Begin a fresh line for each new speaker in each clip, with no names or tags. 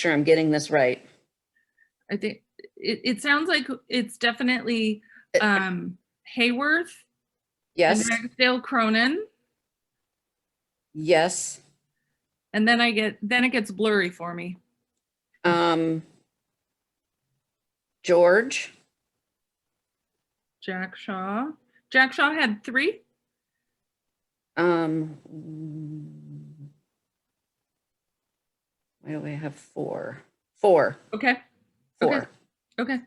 sure I'm getting this right.
I think it, it sounds like it's definitely um Hayworth,
Yes,
Dale Cronin,
yes.
and then I get then it gets blurry for me.
Um, George,
Jack Shaw. Jack Shaw had three.
um, why do I have four? Four,
Okay.
four.
Okay.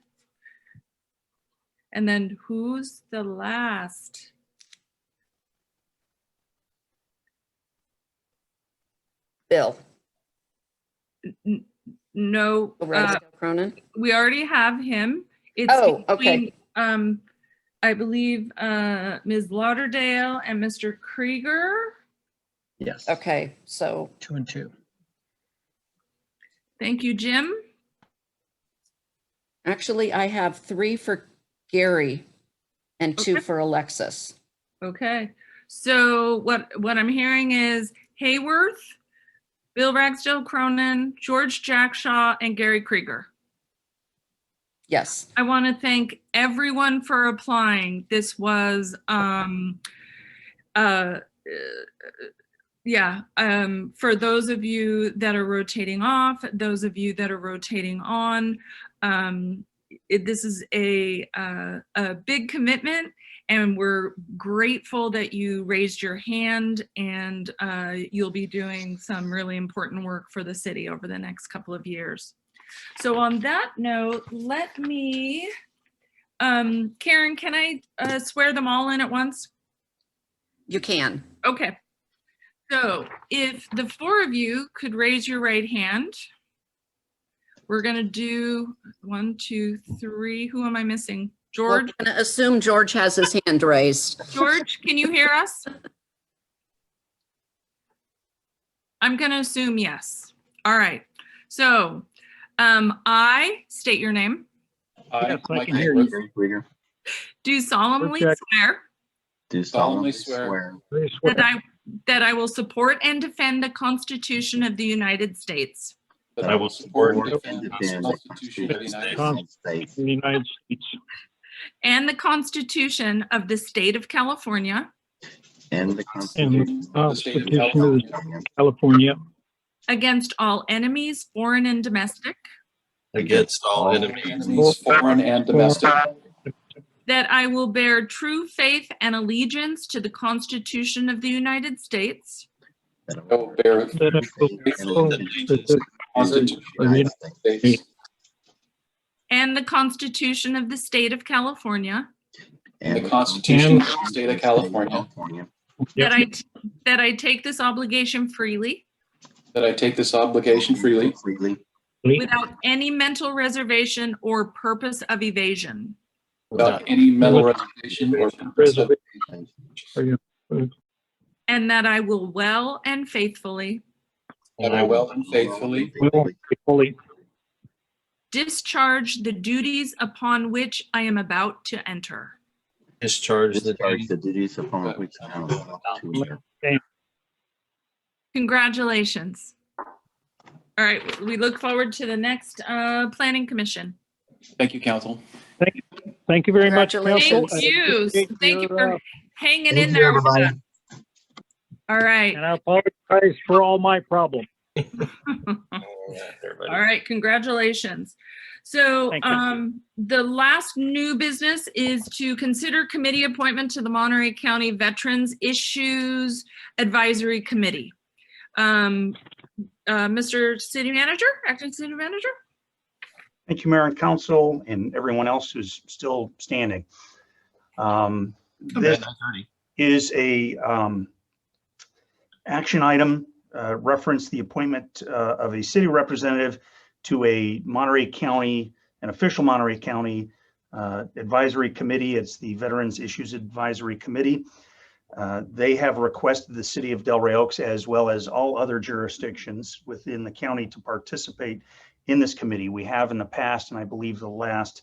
And then who's the last?
Bill,
N- No,
Oh,
uh,
right, Cronin?
we already have him. It's
Oh, okay.
between, Um, I believe uh Ms. Lauderdale and Mr. Krieger.
Yes.
Okay, so,
Two and two.
Thank you, Jim.
Actually, I have three for Gary and two
Okay.
for Alexis.
Okay, so what, what I'm hearing is Hayworth, Bill Ragsdale Cronin, George Jackshaw, and Gary Krieger.
Yes,
I want to thank everyone for applying. This was, um, uh, yeah, um, for those of you that are rotating off, those of you that are rotating on, um, it, this is a, uh, a big commitment and we're grateful that you raised your hand and, uh, you'll be doing some really important work for the city over the next couple of years. So on that note, let me, um, Karen, can I uh, swear them all in at once?
you can.
Okay. So if the four of you could raise your right hand, we're going to do one, two, three. Who am I missing?
We're
George,
gonna assume George has his hand raised.
George, can you hear us? I'm going to assume yes. All right. So um, I state your name,
Yes,
I,
I
Mike
can hear you.
Hayworth,
Krieger,
do solemnly
Object.
swear
do
solemnly
solemnly
swear
swear
I
That
swear
I, that I will support and defend the Constitution of the United States
that I will support and defend the Constitution of the United States
United States
the United States
and the Constitution of the State of California
and um, the
and
Constitution
the
of
Constitution
Constitution of
the
the
State of California
California
against all enemies, foreign and domestic,
against all enemies, foreign and domestic,
that I will bear true faith and allegiance to the Constitution of the United States
that
I will bear
faith
that I will
and
perform
allegiance
the
to the
Constitution
Constitution of the United States
of the States
and the Constitution of the State of California,
and
The Constitution
of the State of California,
that I, that I take this obligation freely
that I take this obligation freely
freely,
without any mental reservation or purpose of evasion,
without any mental reservation or purpose of
and that I will well and faithfully
that I will and faithfully
will fully
discharge the duties upon which I am about to enter.
Discharge the
discharge
duties.
the duties upon which I am about to enter.
Congratulations. All right, we look forward to the next uh, Planning Commission.
Thank you, council.
Thank you very much, council.
Thank
Congratulations.
I
you.
appreciate
Thank you
your,
for
uh,
hanging
Thank
in
you,
there with
everybody.
us. All right,
And I apologize for all my problems.
Everybody.
all right, congratulations. So
Thank you.
um, the last new business is to consider committee appointment to the Monterey County Veterans Issues Advisory Committee. Um, uh, Mr. City Manager, Acting City Manager?
Thank you, Mayor and Council, and everyone else who's still standing. Um, This is a um, action item, uh, reference the appointment uh, of a city representative to a Monterey County, an official Monterey County uh, advisory committee. It's the Veterans Issues Advisory Committee. Uh, They have requested the city of Delray Oaks, as well as all other jurisdictions within the county, to participate in this committee. We have in the past, and I believe the last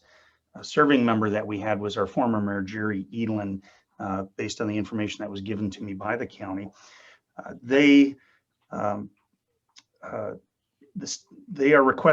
uh, serving member that we had was our former mayor Jerry Edlin, uh, based on the information that was given to me by the county. Uh, They um, uh, This, they are requesting